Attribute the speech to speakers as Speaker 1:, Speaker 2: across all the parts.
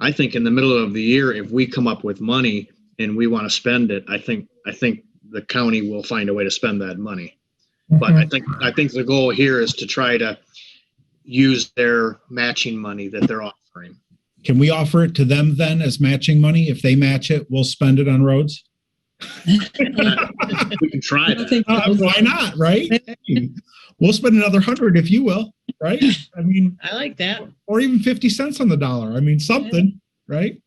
Speaker 1: I think in the middle of the year, if we come up with money and we want to spend it, I think, I think the county will find a way to spend that money. But I think, I think the goal here is to try to use their matching money that they're offering.
Speaker 2: Mm-hmm.
Speaker 3: Can we offer it to them then as matching money? If they match it, we'll spend it on roads?
Speaker 1: We can try
Speaker 2: I don't
Speaker 1: that.
Speaker 2: think
Speaker 3: Uh,
Speaker 2: those-
Speaker 3: why not, right? Hey, We'll spend another hundred if you will, right? I mean,
Speaker 2: I like that.
Speaker 3: or even 50 cents on the dollar. I mean, something, right?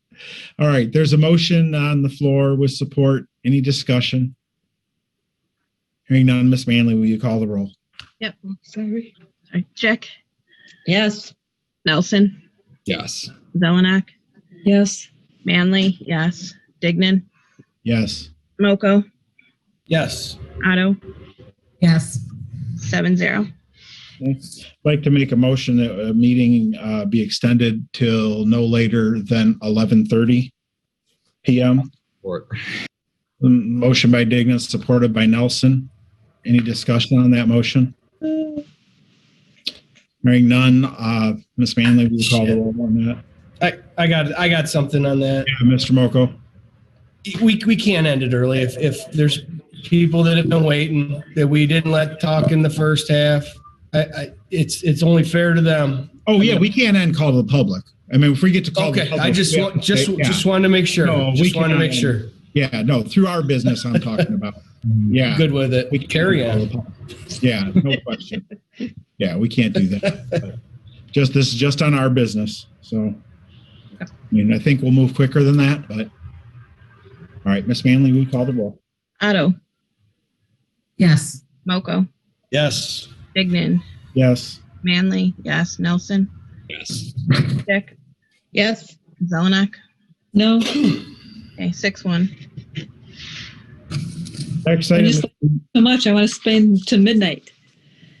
Speaker 3: All right, there's a motion on the floor with support. Any discussion? Hearing none, Miss Manley, will you call the roll?
Speaker 4: Yep.
Speaker 2: Sorry.
Speaker 4: Sorry. Chick,
Speaker 2: Yes.
Speaker 4: Nelson,
Speaker 5: Yes.
Speaker 4: Zelenak,
Speaker 2: Yes.
Speaker 4: Manley, yes. Dignan,
Speaker 3: Yes.
Speaker 4: Moco,
Speaker 5: Yes.
Speaker 4: Otto,
Speaker 6: yes,
Speaker 4: seven zero.
Speaker 3: I'd like to make a motion that a meeting uh, be extended till no later than 11:30 PM.
Speaker 5: Or
Speaker 3: Mm, Motion by Dignan, supported by Nelson. Any discussion on that motion? Hearing none, uh, Ms. Manley, will you call the roll on that?
Speaker 7: I, I got I got something on that.
Speaker 3: Yeah, Mr. Moco.
Speaker 7: We we can't end it early if if there's people that have been waiting that we didn't let talk in the first half. I, I it's it's only fair to them.
Speaker 3: Oh, yeah, we can't end call to the public. I mean, if we get to call the
Speaker 7: Okay,
Speaker 3: public.
Speaker 7: I just
Speaker 3: we have
Speaker 7: want
Speaker 3: to
Speaker 7: just
Speaker 3: say- yeah.
Speaker 7: just wanted to make sure.
Speaker 3: No, we
Speaker 7: just wanted to
Speaker 3: cannot
Speaker 7: make
Speaker 3: end
Speaker 7: sure.
Speaker 3: Yeah, no, through our business I'm talking about. Yeah.
Speaker 7: Good with it.
Speaker 3: We
Speaker 7: We
Speaker 3: can't
Speaker 7: carry
Speaker 3: call
Speaker 7: on.
Speaker 3: the public. Yeah, no question. Yeah, we can't do that. Just, this is just on our business, so. I mean, I think we'll move quicker than that, but. All right, Miss Manley, we call the roll.
Speaker 4: Otto,
Speaker 6: yes,
Speaker 4: Moco,
Speaker 5: yes.
Speaker 4: Dignan,
Speaker 3: Yes.
Speaker 4: Manley, yes. Nelson,
Speaker 5: Yes.
Speaker 4: Chick,
Speaker 2: Yes.
Speaker 4: Zelenak.
Speaker 2: No.
Speaker 4: Okay, six one.
Speaker 3: Next
Speaker 2: I
Speaker 3: item.
Speaker 2: just so much. I want to spend to midnight.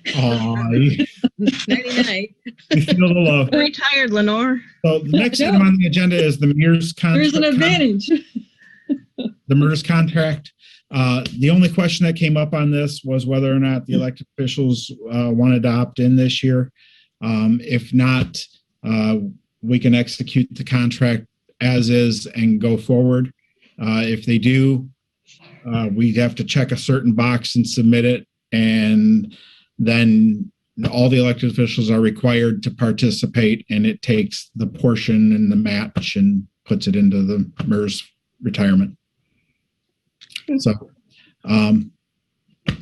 Speaker 3: Aw, you
Speaker 2: Nighty night.
Speaker 3: you feel the love.
Speaker 4: Retired Lenore.
Speaker 3: So the next item on the agenda is the mayor's contract.
Speaker 2: There's an advantage.
Speaker 3: the MERS contract. Uh, The only question that came up on this was whether or not the elected officials uh, wanted to opt in this year. Um, If not, uh, we can execute the contract as is and go forward. Uh, If they do, uh, we'd have to check a certain box and submit it. And then all the elected officials are required to participate and it takes the portion and the match and puts it into the MERS retirement. So, um,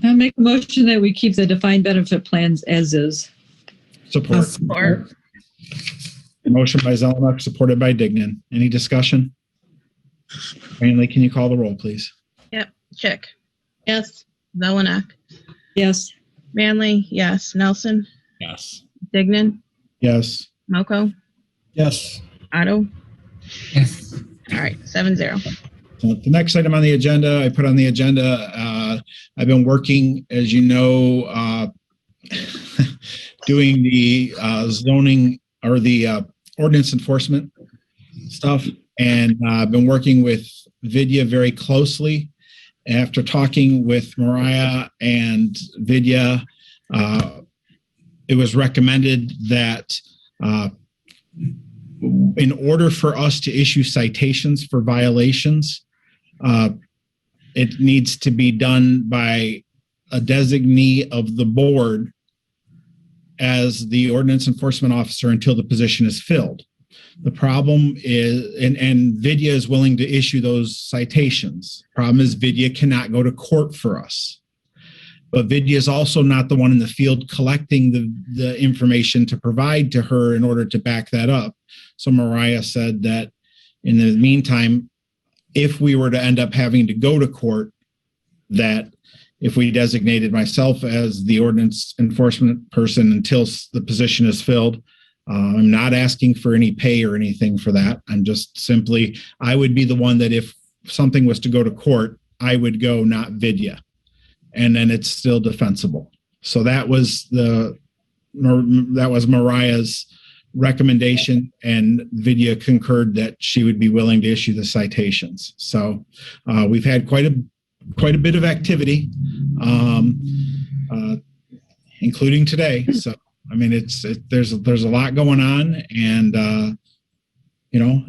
Speaker 2: I make a motion that we keep the defined benefit plans as is.
Speaker 6: I'll
Speaker 3: support.
Speaker 6: support.
Speaker 3: Motion by Zelenak, supported by Dignan. Any discussion? Manley, can you call the roll, please?
Speaker 4: Chick,
Speaker 2: Yes.
Speaker 4: Zelenak,
Speaker 2: Yes.
Speaker 4: Manley, yes. Nelson,
Speaker 5: Yes.
Speaker 4: Dignan,
Speaker 3: Yes.
Speaker 4: Moco,
Speaker 7: Yes.
Speaker 4: Otto.
Speaker 6: yes.
Speaker 4: All right, seven zero.
Speaker 3: So The next item on the agenda, I put on the agenda, uh, I've been working, as you know, uh, doing the uh, zoning or the uh, ordinance enforcement stuff. And uh, I've been working with Vidya very closely. After talking with Mariah and Vidya, uh, it was recommended that uh, in order for us to issue citations for violations, uh, it needs to be done by a designee of the board as the ordinance enforcement officer until the position is filled. The problem is, and, and Vidya is willing to issue those citations. Problem is Vidya cannot go to court for us. But Vidya is also not the one in the field collecting the, the information to provide to her in order to back that up. So Mariah said that in the meantime, if we were to end up having to go to court, that if we designated myself as the ordinance enforcement person until s- the position is filled, uh, I'm not asking for any pay or anything for that. I'm just simply, I would be the one that if something was to go to court, I would go, not Vidya. And then it's still defensible. So that was the, Mar- that was Mariah's recommendation and Vidya concurred that she would be willing to issue the citations. So uh, we've had quite a quite a bit of activity, um, uh, including today. So I mean, it's it, there's there's a lot going on, and uh, you know,